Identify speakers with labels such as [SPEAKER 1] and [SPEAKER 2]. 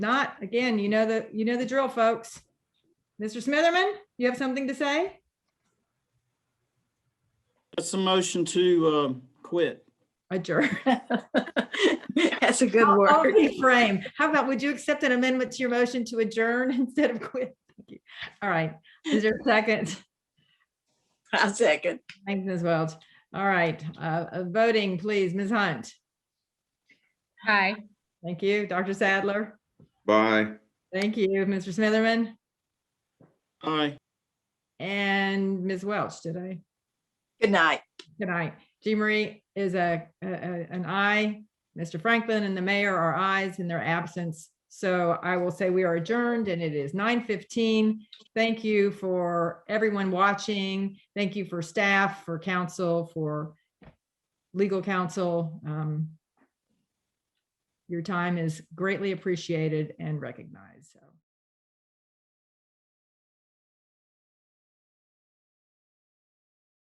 [SPEAKER 1] Not, again, you know the, you know the drill, folks. Mr. Smitherman, you have something to say?
[SPEAKER 2] That's a motion to um, quit.
[SPEAKER 1] Adjourn.
[SPEAKER 3] That's a good
[SPEAKER 1] I'll- I'll
[SPEAKER 3] word.
[SPEAKER 1] reframe. How about, would you accept an amendment to your motion to adjourn instead of quit? Thank you. All right. Is there a second?
[SPEAKER 3] I second.
[SPEAKER 1] Thanks, Ms. Welch. All right, uh, uh, voting, please. Ms. Hunt.
[SPEAKER 4] Hi.
[SPEAKER 1] Thank you. Dr. Sadler.
[SPEAKER 5] Bye.
[SPEAKER 1] Thank you, Mr. Smitherman
[SPEAKER 2] Aye.
[SPEAKER 1] and Ms. Welch today.
[SPEAKER 3] Good night.
[SPEAKER 1] Good night. Jean Marie is a, a- a- an aye. Mr. Franklin and the mayor are ayes in their absence. So I will say we are adjourned and it is nine fifteen. Thank you for everyone watching. Thank you for staff, for council, for legal counsel. Um, Your time is greatly appreciated and recognized, so.